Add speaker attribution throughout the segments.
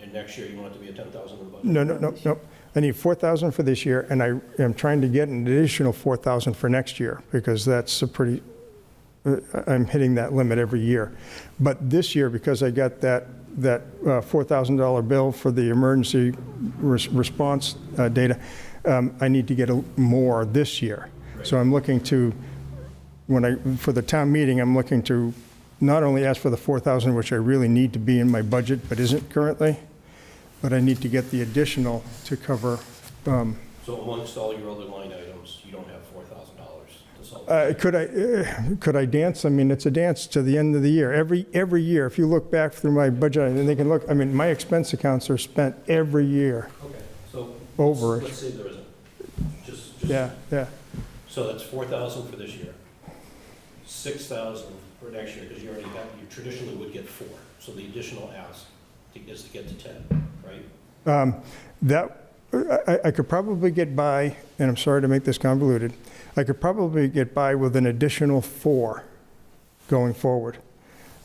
Speaker 1: and next year you want it to be a ten thousand in the budget?
Speaker 2: No, no, no, no. I need 4,000 for this year, and I am trying to get an additional 4,000 for next year, because that's a pretty, uh, I'm hitting that limit every year. But this year, because I got that, that uh, $4,000 bill for the emergency res- response uh, data, um, I need to get a- more this year. So I'm looking to, when I, for the town meeting, I'm looking to not only ask for the 4,000, which I really need to be in my budget, but isn't currently, but I need to get the additional to cover, um,
Speaker 1: So amongst all your other line items, you don't have four thousand dollars to solve?
Speaker 2: uh, could I, uh, could I dance? I mean, it's a dance to the end of the year. Every, every year, if you look back through my budget, and they can look, I mean, my expense accounts are spent every year.
Speaker 1: Okay, so.
Speaker 2: Over it.
Speaker 1: Let's say there isn't. Just, just.
Speaker 2: Yeah, yeah.
Speaker 1: So that's four thousand for this year, six thousand for next year, because you already got, you traditionally would get four. So the additional ask to- is to get to ten, right?
Speaker 2: Um, That, I, I could probably get by, and I'm sorry to make this convoluted, I could probably get by with an additional four going forward.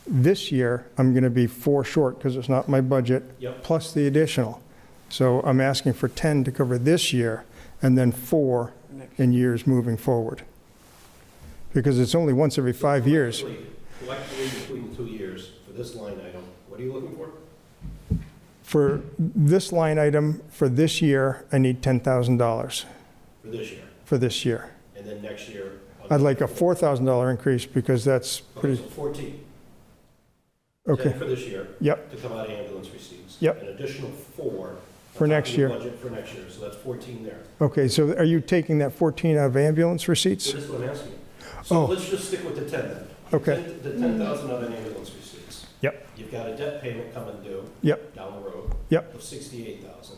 Speaker 2: This year, I'm going to be four short because it's not my budget.
Speaker 1: Yep.
Speaker 2: Plus the additional. So I'm asking for 10 to cover this year and then four in years moving forward. Because it's only once every five years.
Speaker 1: Collectively- Collectively, between the two years, for this line item, what are you looking for?
Speaker 2: For this line item, for this year, I need $10,000
Speaker 1: For this year,
Speaker 2: for this year.
Speaker 1: and then next year?
Speaker 2: I'd like a $4,000 increase because that's
Speaker 1: Okay,
Speaker 2: pretty,
Speaker 1: so fourteen.
Speaker 2: okay,
Speaker 1: Ten for this year,
Speaker 2: yep,
Speaker 1: to come out of ambulance receipts.
Speaker 2: Yep.
Speaker 1: An additional four.
Speaker 2: For
Speaker 1: on top
Speaker 2: next
Speaker 1: of your
Speaker 2: year.
Speaker 1: Budget for next year, so that's fourteen there.
Speaker 2: okay, so are you taking that 14 out of ambulance receipts?
Speaker 1: That is what I'm asking. So
Speaker 2: Oh.
Speaker 1: let's just stick with the ten then.
Speaker 2: Okay.
Speaker 1: Ten- The ten thousand of an ambulance receipts.
Speaker 2: Yep.
Speaker 1: You've got a debt payment coming due
Speaker 2: Yep,
Speaker 1: down the road.
Speaker 2: Yep.
Speaker 1: Of sixty-eight thousand.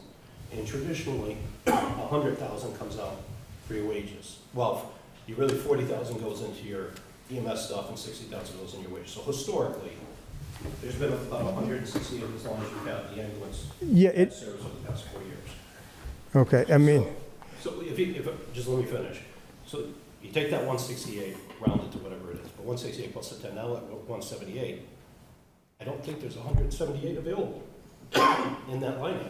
Speaker 1: And traditionally, a hundred thousand comes out for your wages. Well, you really, forty thousand goes into your EMS stuff and sixty thousand goes in your wages. So historically, there's been about a hundred and sixty as long as you've had the ambulance
Speaker 2: yeah, it,
Speaker 1: service over the past four years.
Speaker 2: okay, I mean,
Speaker 1: So if you, if, just let me finish. So you take that one sixty-eight, round it to whatever it is, but one sixty-eight plus the ten, now one seventy-eight. I don't think there's hundred and seventy-eight available in that line item.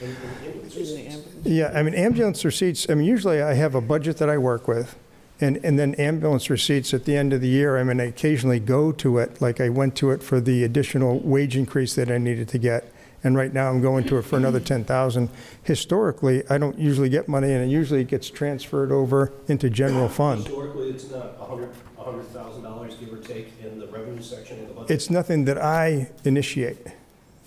Speaker 1: in- in- in-
Speaker 2: yeah, I mean, ambulance receipts, I mean, usually I have a budget that I work with, and, and then ambulance receipts at the end of the year, I mean, I occasionally go to it, like I went to it for the additional wage increase that I needed to get, and right now I'm going to it for another 10,000. Historically, I don't usually get money, and it usually gets transferred over into general fund.
Speaker 1: Historically, it's not a hundred, a hundred thousand dollars, give or take, in the revenue section of the budget.
Speaker 2: It's nothing that I initiate.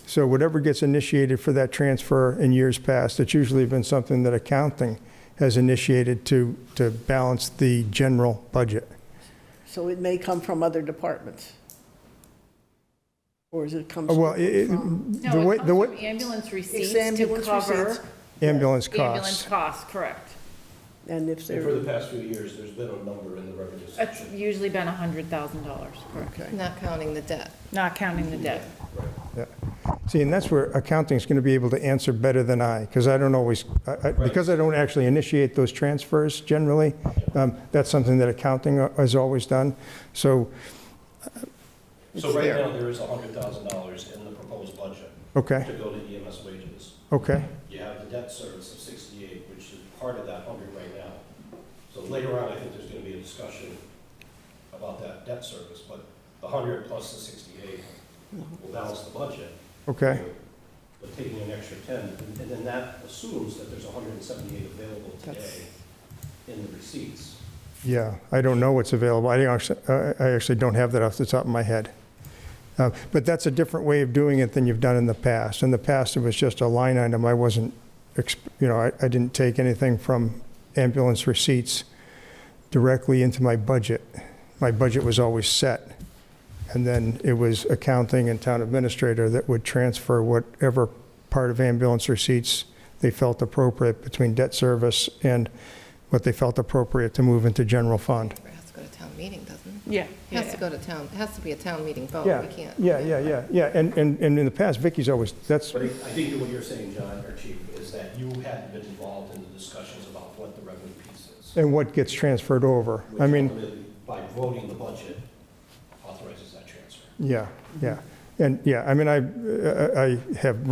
Speaker 2: So whatever gets initiated for that transfer in years past, it's usually been something that accounting has initiated to, to balance the general budget.
Speaker 3: So it may come from other departments? Or is it comes?
Speaker 2: Uh, Well, it- it- the
Speaker 4: No,
Speaker 2: way,
Speaker 4: it
Speaker 2: the
Speaker 4: comes from
Speaker 2: way,
Speaker 4: ambulance receipts to
Speaker 3: ambulance
Speaker 4: cover
Speaker 3: receipts.
Speaker 2: ambulance
Speaker 4: ambulance
Speaker 2: costs.
Speaker 4: costs, correct.
Speaker 3: And if
Speaker 1: And for
Speaker 3: there,
Speaker 1: the past few years, there's been a number in the revenue
Speaker 4: It's
Speaker 1: section.
Speaker 4: usually been $100,000, correct,
Speaker 3: okay.
Speaker 5: Not counting the debt.
Speaker 4: not counting the debt.
Speaker 2: Yeah. See, and that's where accounting's going to be able to answer better than I, because I don't always, I- I- because I don't actually initiate those transfers generally, um, that's something that accounting uh, has always done. So,
Speaker 1: So right now, there is a hundred thousand dollars in the proposed budget
Speaker 2: okay,
Speaker 1: to go to EMS wages.
Speaker 2: okay,
Speaker 1: You have the debt service of 68, which is part of that 100 right now. So later on, I think there's going to be a discussion about that debt service, but the 100 plus the 68 will balance the budget.
Speaker 2: okay,
Speaker 1: But taking an extra 10, and and then that assumes that there's 178 available today
Speaker 3: That's-
Speaker 1: in the receipts.
Speaker 2: yeah, I don't know what's available, I don't actually, I I actually don't have that off the top of my head. Uh, But that's a different way of doing it than you've done in the past. In the past, it was just a line item, I wasn't, exp- you know, I I didn't take anything from ambulance receipts directly into my budget. My budget was always set, and then it was accounting and town administrator that would transfer whatever part of ambulance receipts they felt appropriate between debt service and what they felt appropriate to move into general fund.
Speaker 5: It has to go to town meeting, doesn't
Speaker 4: Yeah.
Speaker 5: it? It has to go to town, it has to be a town meeting vote.
Speaker 2: Yeah,
Speaker 5: Oh, We can't.
Speaker 2: yeah, yeah, yeah, yeah, and, and and in the past, Vicky's always, that's,
Speaker 1: But I I think that what you're saying, John, or Chief, is that you hadn't been involved in the discussions about what the revenue piece is.
Speaker 2: and what gets transferred over.
Speaker 1: which
Speaker 2: I mean,
Speaker 1: ultimately, By voting the budget authorizes that transfer.
Speaker 2: yeah, yeah. And, yeah, I mean, I, I I have